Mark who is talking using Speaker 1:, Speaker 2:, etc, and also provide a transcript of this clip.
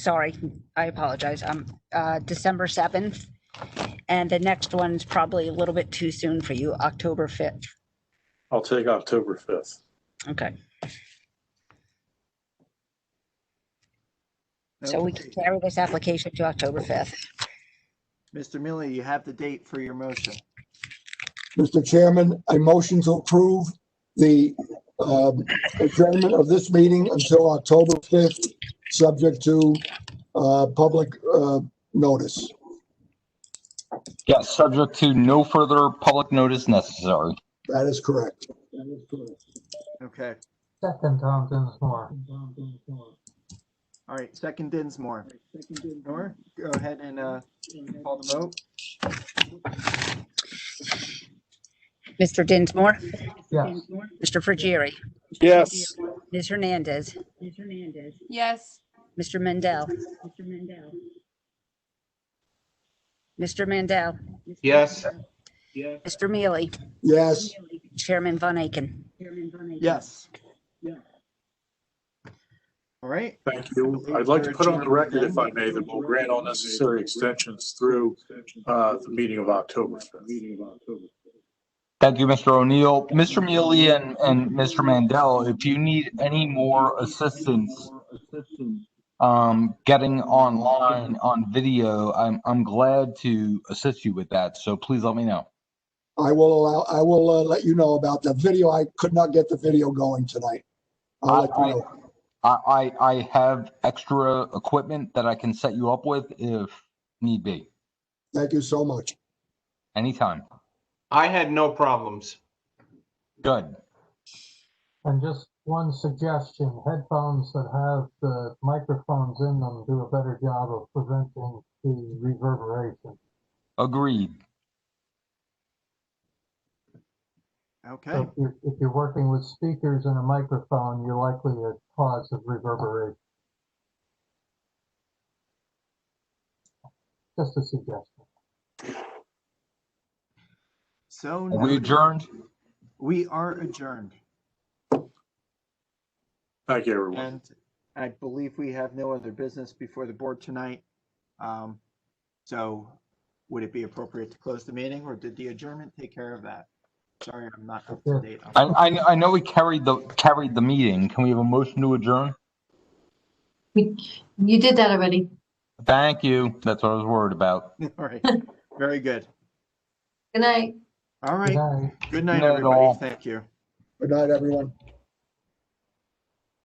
Speaker 1: sorry, I apologize, um, uh, December seventh. And the next one's probably a little bit too soon for you, October fifth.
Speaker 2: I'll take October fifth.
Speaker 1: Okay, so we can
Speaker 3: Okay.
Speaker 1: carry this application to October fifth.
Speaker 3: Mr. Miller, you have the date for your motion.
Speaker 4: Mr. Chairman, I motion to approve the um, adjournment of this meeting until October 5th, subject to uh, public uh, notice.
Speaker 5: Yes, subject to no further public notice necessary.
Speaker 4: That is correct.
Speaker 3: Okay,
Speaker 6: Second Tom Dinsmore.
Speaker 3: all right, second Dinsmore. Nora, go ahead and uh, call the vote.
Speaker 1: Mr. Dinsmore,
Speaker 6: Yes.
Speaker 1: Mr. Frigieri,
Speaker 2: Yes,
Speaker 1: Ms. Hernandez,
Speaker 7: Ms. Hernandez.
Speaker 8: Yes.
Speaker 1: Mr. Mendel,
Speaker 7: Mr. Mandel.
Speaker 1: Mr. Mandel,
Speaker 7: Yes.
Speaker 1: Mr. Mealy,
Speaker 4: Yes,
Speaker 1: Chairman Von Aiken.
Speaker 7: Chairman Von Aiken.
Speaker 3: Yes.
Speaker 7: Yeah.
Speaker 3: All right,
Speaker 2: thank you. I'd like to put on the record, if I may, that we'll grant all necessary extensions through uh, the meeting of October fifth.
Speaker 5: Thank you, Mr. O'Neill. Mr. Mealy and, and Mr. Mandel, if you need any more assistance um, getting online on video, I'm, I'm glad to assist you with that. So please let me know.
Speaker 4: I will allow, I will uh, let you know about the video. I could not get the video going tonight. I'll let you know.
Speaker 5: I, I, I have extra equipment that I can set you up with if need be,
Speaker 4: Thank you so much.
Speaker 5: anytime.
Speaker 9: I had no problems.
Speaker 5: Good.
Speaker 6: And just one suggestion, headphones that have the microphones in them do a better job of preventing the reverberation.
Speaker 5: Agreed.
Speaker 3: okay,
Speaker 6: So if you're, if you're working with speakers and a microphone, you're likely to cause a reverberation. Just a suggestion.
Speaker 3: so
Speaker 5: Are we
Speaker 3: noted.
Speaker 5: adjourned?
Speaker 3: we are adjourned.
Speaker 2: Thank you, everyone.
Speaker 3: And I believe we have no other business before the board tonight. Um, So would it be appropriate to close the meeting or did the adjournment take care of that? Sorry, I'm not up to date. on-
Speaker 5: I, I, I know we carried the, carried the meeting. Can we have a motion to adjourn?
Speaker 10: We, you did that already.
Speaker 5: Thank you. That's what I was worried about.
Speaker 3: All right, very good.
Speaker 10: Good night.
Speaker 3: All
Speaker 6: Good
Speaker 3: right,
Speaker 6: night.
Speaker 3: good night,
Speaker 5: Not at all.
Speaker 3: everybody. Thank you.
Speaker 4: Good night, everyone.